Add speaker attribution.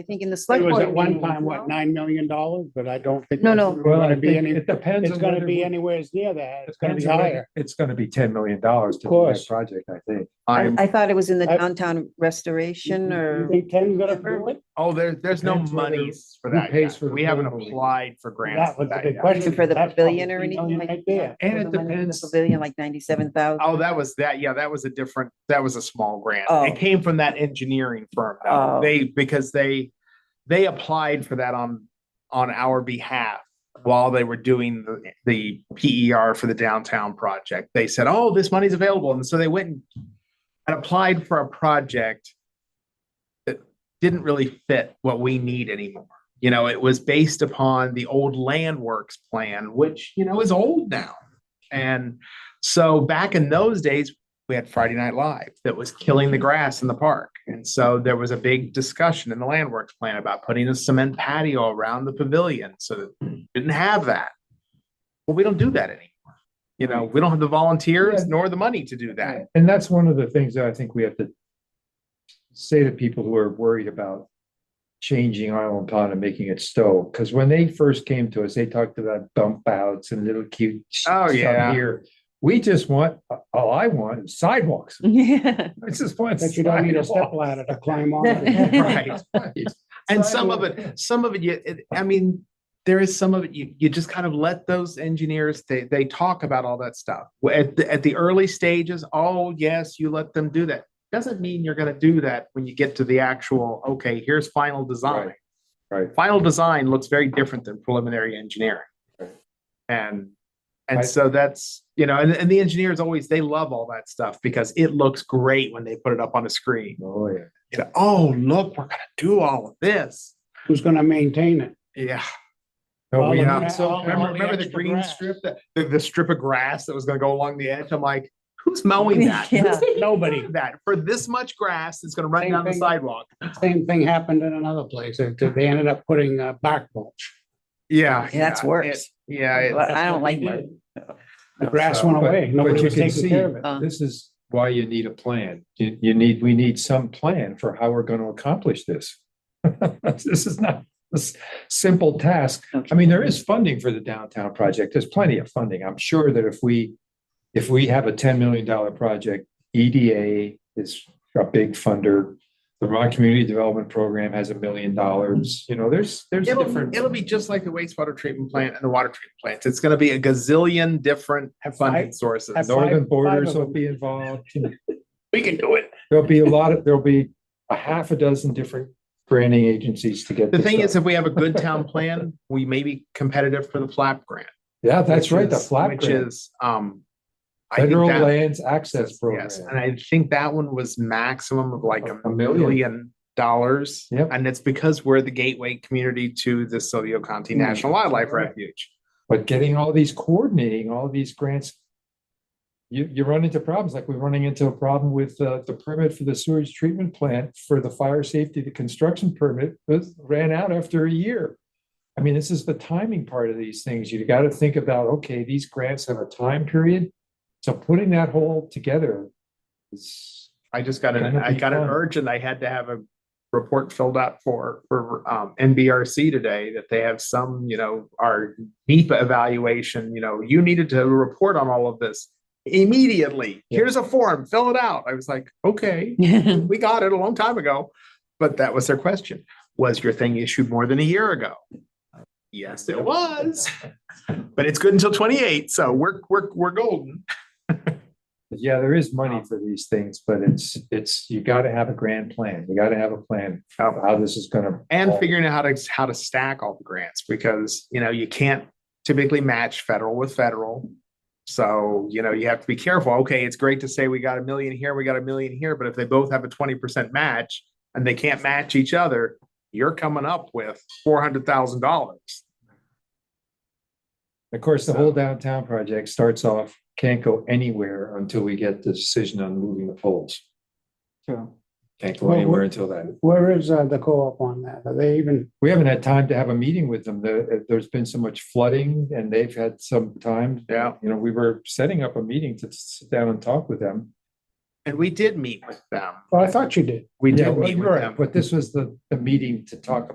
Speaker 1: I think in the
Speaker 2: It
Speaker 1: select
Speaker 2: was
Speaker 1: board.
Speaker 2: at one
Speaker 1: meeting as
Speaker 2: time, what,
Speaker 1: well.
Speaker 2: nine million dollars, but I don't think.
Speaker 1: No,
Speaker 2: that's
Speaker 1: no.
Speaker 2: Going
Speaker 3: Well, I
Speaker 2: to be
Speaker 3: think
Speaker 2: any,
Speaker 3: it depends.
Speaker 2: it's
Speaker 3: on
Speaker 2: gonna
Speaker 3: whether
Speaker 2: be
Speaker 3: we-
Speaker 2: anywheres near that. It's gonna be
Speaker 3: depends on whether-
Speaker 2: higher.
Speaker 3: It's gonna be ten million dollars to do that
Speaker 2: course.
Speaker 3: project, I think.
Speaker 1: I
Speaker 4: I'm,
Speaker 1: I thought it was in the
Speaker 2: I-
Speaker 1: downtown restoration
Speaker 2: You
Speaker 1: or,
Speaker 2: think Ken's gonna do it?
Speaker 4: oh, there, there's no
Speaker 3: Depends whether-
Speaker 4: monies for
Speaker 3: who
Speaker 4: that.
Speaker 3: pays
Speaker 4: yet.
Speaker 3: for the
Speaker 4: We haven't
Speaker 3: building.
Speaker 4: applied for grants.
Speaker 2: That
Speaker 4: for
Speaker 2: was the
Speaker 4: that
Speaker 2: big
Speaker 4: yet.
Speaker 2: question.
Speaker 1: for the
Speaker 2: That's
Speaker 1: pavilion or
Speaker 2: probably
Speaker 1: anything
Speaker 2: million
Speaker 1: like.
Speaker 2: Right there.
Speaker 3: And
Speaker 1: for
Speaker 3: it
Speaker 1: the money for the
Speaker 3: depends-
Speaker 1: Pavilion like ninety-seven thousand.
Speaker 4: Oh, that was that. Yeah, that was a different, that was a small grant.
Speaker 1: Oh.
Speaker 4: It came from that engineering firm. though.
Speaker 1: Oh.
Speaker 4: They, because they, they applied for that on, on our behalf while they were doing the, the PER for the downtown project. They said, oh, this money's available. And so they went and and applied for a project that didn't really fit what we need anymore. You know, it was based upon the old land works plan, which, you know, is old now. And so back in those days, we had Friday Night Live that was killing the grass in the park. And so there was a big discussion in the land works plan about putting a cement patio around the pavilion. So that we didn't have that. Well, we don't do that anymore. You know, we don't have the volunteers
Speaker 3: Yeah.
Speaker 4: nor the money to do that.
Speaker 3: And that's one of the things that I think we have to say to people who are worried about changing Island Pond and making it Stowe, because when they first came to us, they talked about bump outs and little cute
Speaker 4: Oh,
Speaker 3: stuff
Speaker 4: yeah.
Speaker 3: here. We just want, all I want is sidewalks.
Speaker 1: Yeah,
Speaker 3: I just want
Speaker 2: That you don't need a step
Speaker 3: sidewalks.
Speaker 2: ladder to climb on.
Speaker 4: Right.
Speaker 3: Right.
Speaker 4: And some of
Speaker 3: Sidewalk.
Speaker 4: it, some of it, you, it, I mean, there is some of it, you, you just kind of let those engineers, they, they talk about all that stuff. Well, At, the- at the early stages, oh, yes, you let them do that. Doesn't mean you're gonna do that when you get to the actual, okay, here's final design.
Speaker 3: Right.
Speaker 4: Final design looks very different than preliminary engineering.
Speaker 3: Right.
Speaker 4: And, and
Speaker 3: Right.
Speaker 4: so that's, you know, and, and the engineers always, they love all that stuff because it looks great when they put it up on a screen.
Speaker 3: Oh, yeah.
Speaker 4: You know, oh, look, we're gonna do all of this.
Speaker 2: Who's gonna maintain it?
Speaker 4: Yeah.
Speaker 3: No,
Speaker 2: Well,
Speaker 3: we
Speaker 2: the
Speaker 4: Yeah.
Speaker 3: have,
Speaker 2: gra- all-
Speaker 4: So remember,
Speaker 2: all the
Speaker 4: remember the
Speaker 2: extra
Speaker 4: green
Speaker 2: grass.
Speaker 4: strip, that- the, the strip of grass that was gonna go along the edge? I'm like, who's mowing that? Who's
Speaker 1: Yeah.
Speaker 4: taking
Speaker 2: Nobody.
Speaker 4: care of That for this much grass that's gonna run
Speaker 2: Same
Speaker 4: down the
Speaker 2: thing.
Speaker 4: sidewalk.
Speaker 2: Same thing happened in another place. They they ended up putting uh, bark mulch.
Speaker 4: Yeah.
Speaker 1: Yeah, that's
Speaker 4: yeah,
Speaker 1: worse.
Speaker 4: it- Yeah.
Speaker 1: Well,
Speaker 4: it-
Speaker 1: I don't
Speaker 2: what
Speaker 1: like
Speaker 2: they
Speaker 1: that.
Speaker 2: did. The grass went
Speaker 3: But-
Speaker 2: away.
Speaker 3: but
Speaker 2: Nobody
Speaker 3: you
Speaker 2: was
Speaker 3: can
Speaker 2: taking care
Speaker 3: see-
Speaker 2: of it.
Speaker 1: Uh.
Speaker 3: This is why you need a plan. You, you need, we need some plan for how we're gonna accomplish this. This is not a s- simple task. I mean, there is funding for the downtown project. There's plenty of funding. I'm sure that if we, if we have a ten million dollar project, EDA is a big funder. The Vermont Community Development Program has a million dollars. You know, there's, there's
Speaker 4: It'll,
Speaker 3: different.
Speaker 4: it'll be just like the wastewater treatment plant and the water treatment plants. It's gonna be a gazillion different funding
Speaker 2: I-
Speaker 4: sources.
Speaker 2: have
Speaker 3: Northern
Speaker 2: five- five
Speaker 3: borders
Speaker 2: of
Speaker 3: will
Speaker 2: them.
Speaker 3: be involved.
Speaker 2: We can do it.
Speaker 3: There'll be a lot of, there'll be a half a dozen different granting agencies to get.
Speaker 4: The
Speaker 3: this
Speaker 4: thing is,
Speaker 3: done.
Speaker 4: if we have a good town plan, we may be competitive for the flap grant.
Speaker 3: Yeah, that's
Speaker 4: which
Speaker 3: right, the
Speaker 4: is-
Speaker 3: flat
Speaker 4: Which
Speaker 3: grant,
Speaker 4: is, um. I think
Speaker 3: federal
Speaker 4: that-
Speaker 3: lands access program.
Speaker 4: Yes, and I think that one was maximum of like a
Speaker 3: A million.
Speaker 4: million dollars.
Speaker 3: Yep.
Speaker 4: And it's because we're the gateway community to the Silvio Conti National Wildlife
Speaker 3: Mm, Right.
Speaker 4: Refuge.
Speaker 3: But getting all these coordinating, all these grants. You, you run into problems, like we're running into a problem with uh, the permit for the sewage treatment plant for the fire safety, the construction permit was ran out after a year. I mean, this is the timing part of these things. You gotta think about, okay, these grants have a time period. So putting that whole together is
Speaker 4: I just got an,
Speaker 3: That'll
Speaker 4: I
Speaker 3: be
Speaker 4: got an
Speaker 3: fun.
Speaker 4: urge and I had to have a report filled out for, for, um, NBRC today that they have some, you know, our NEPA evaluation, you know, you needed to report on all of this immediately.
Speaker 3: Yeah.
Speaker 4: Here's a form, fill it out. I was like, okay. we got it a long time ago, but that was their question. Was your thing issued more than a year ago? Yes, it was, but it's good until twenty-eight, so we're, we're, we're golden.
Speaker 3: Yeah, there is money for these things, but it's, it's, you gotta have a grand plan. You gotta have a plan of how this is gonna.
Speaker 4: And
Speaker 3: all-
Speaker 4: figuring out how to, how to stack all the grants, because, you know, you can't typically match federal with federal. So, you know, you have to be careful. Okay, it's great to say we got a million here, we got a million here, but if they both have a twenty percent match and they can't match each other, you're coming up with four hundred thousand dollars.
Speaker 3: Of course, the whole downtown project starts off, can't go anywhere until we get the decision on moving the poles.
Speaker 1: True.
Speaker 3: Can't go
Speaker 2: Well, we-
Speaker 3: anywhere until then.
Speaker 2: Where is uh, the co-op on that? Are they even,
Speaker 3: We haven't had time to have a meeting with them. There, there's been so much flooding and they've had some time.
Speaker 4: Yeah.
Speaker 3: You know, we were setting up a meeting to sit down and talk with them.
Speaker 4: And we did meet with them.
Speaker 2: Well, I thought you did.
Speaker 4: We
Speaker 3: Yeah,
Speaker 4: did
Speaker 3: well,
Speaker 4: meet with
Speaker 3: right,
Speaker 4: them.
Speaker 3: but this was the, the meeting to talk